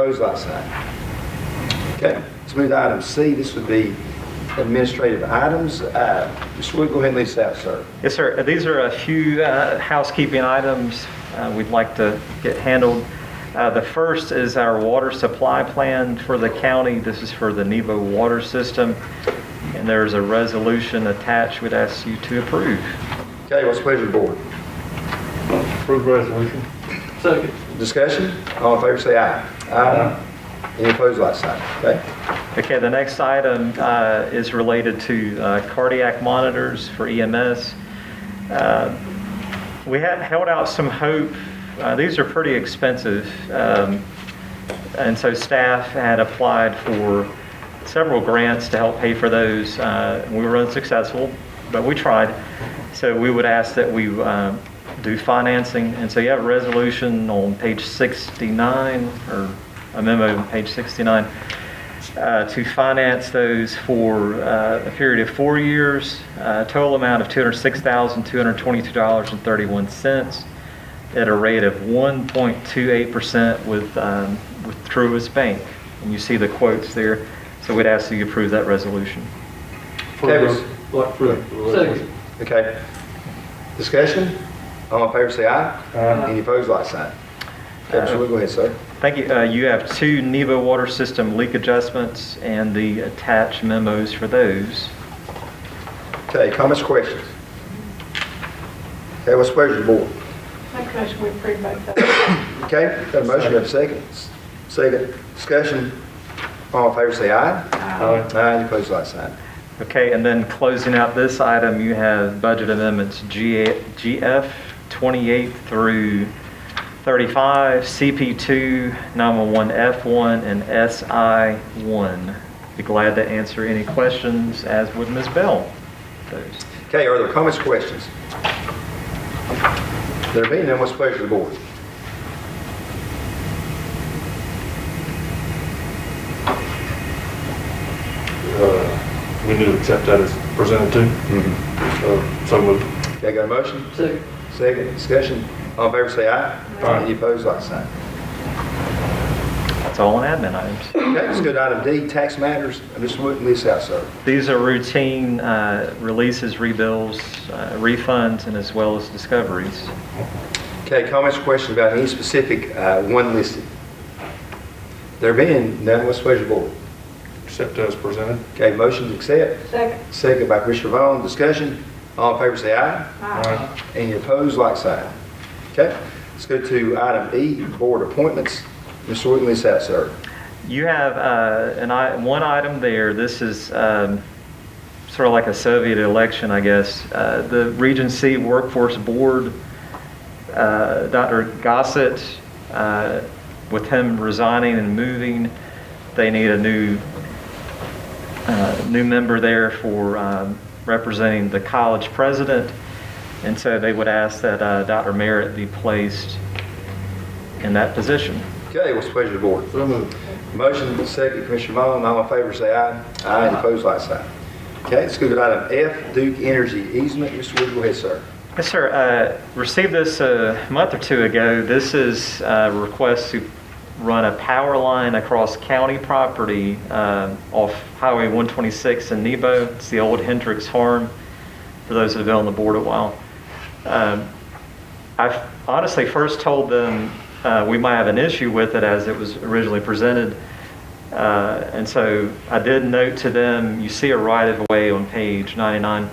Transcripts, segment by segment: Opposed, like sign. Okay, let's move to item C. This would be administrative items. Uh, Mr. Wood, go ahead and lead us out, sir. Yes, sir. Uh, These are a few uh, housekeeping items uh, we'd like to get handled. Uh, The first is our water supply plan for the county. This is for the Nebo Water System, and there's a resolution attached we'd ask you to approve. Okay, what's the pleasure of the board? Approve resolution. Second. Discussion? All in favor, say aye. Aye. Any opposed, like sign. Okay? Okay, the next item uh, is related to uh, cardiac monitors for EMS. Uh, We had held out some hope. Uh, These are pretty expensive. um, And so staff had applied for several grants to help pay for those. Uh, We were unsuccessful, but we tried. So we would ask that we uh, do financing. And so you have a resolution on page 69, or a memo on page 69, uh, to finance those for uh, a period of four years, a total amount of $206,222.31 at a rate of 1.28% with, um, with Truist Bank. And you see the quotes there. So we'd ask that you approve that resolution. Okay, was- Like, approve. Second. Okay. Discussion? All in favor, say aye. Aye. Any opposed, like sign. Okay, Mr. Wood, go ahead, sir. Thank you. Uh, You have two NEVA water system leak adjustments and the attached memos for those. Okay, comments, questions? Okay, what's the pleasure of the board? Make a motion, we approve both of them. Okay, got a motion, got a second. Second, discussion. All in favor, say aye. Aye. Aye, any opposed, like sign. Okay, and then closing out this item, you have budget amendments GA GF 28 through 35, CP2, 911F1, and SI1. Be glad to answer any questions, as would Ms. Bell. Those. Okay, are there comments, questions? There being none, what's the pleasure of the board? Uh, We need to accept that as presented too. Uh, So moved. Okay, got a motion? Second. Second, discussion. All in favor, say aye. Aye. Any opposed, like sign. That's all on admin items. Okay, let's go to item D, tax matters. Mr. Wood, lead us out, sir. These are routine uh, releases, rebills, uh, refunds, and as well as discoveries. Okay, comments, questions about any specific uh, one listed? There being none, what's the pleasure of the board? Accept as presented. Okay, motion to accept, Second. second by Commissioner Vaughn, discussion. All in favor, say aye. Aye. Any opposed, like sign. Okay, let's go to item E, board appointments. Mr. Wood, lead us out, sir. You have uh, an i- one item there. This is um, sort of like a Soviet election, I guess. Uh, the Regency Workforce Board, uh, Dr. Gossett, uh, with him resigning and moving, they need a new uh, new member there for um, representing the college president, and so they would ask that uh, Dr. Merritt be placed in that position. Okay, what's the pleasure of the board? So moved. Motion, second, Commissioner Vaughn, all in favor, say aye. Aye, any opposed, like sign. Okay, let's go to item F, Duke Energy easement. Mr. Wood, go ahead, sir. Yes, sir. Uh, Received this uh, a month or two ago. This is uh, a request to run a power line across county property uh, off Highway 126 in Nebo. It's the old Hendricks Farm, for those that have been on the board a while. Um, I honestly first told them uh, we might have an issue with it as it was originally presented. Uh, And so I did note to them, you see a right-of-way on page 99,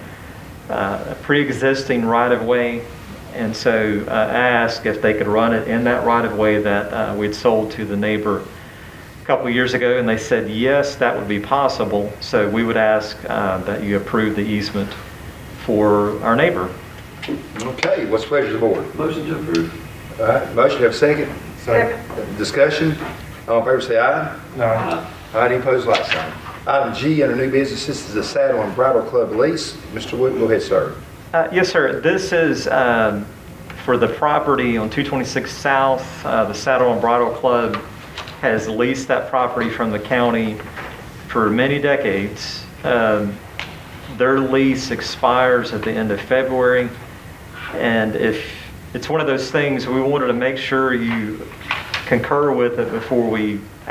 uh, a pre-existing right-of-way. And so uh, I asked if they could run it in that right-of-way that uh, we'd sold to the neighbor a couple years ago. And they said, yes, that would be possible. So we would ask uh, that you approve the easement for our neighbor. Okay, what's the pleasure of the board? Motion to approve. All right, motion, have a second. Second. Discussion, all in favor, say aye. Aye. Aye, any opposed, like sign. Item G, under new business, this is the Saddle and Bridle Club lease. Mr. Wood, go ahead, sir. Uh, Yes, sir. This is um, for the property on 226 South. Uh, The Saddle and Bridle Club has leased that property from the county for many decades. Um, Their lease expires at the end of February, and if, it's one of those things, we wanted to make sure you concur with it before we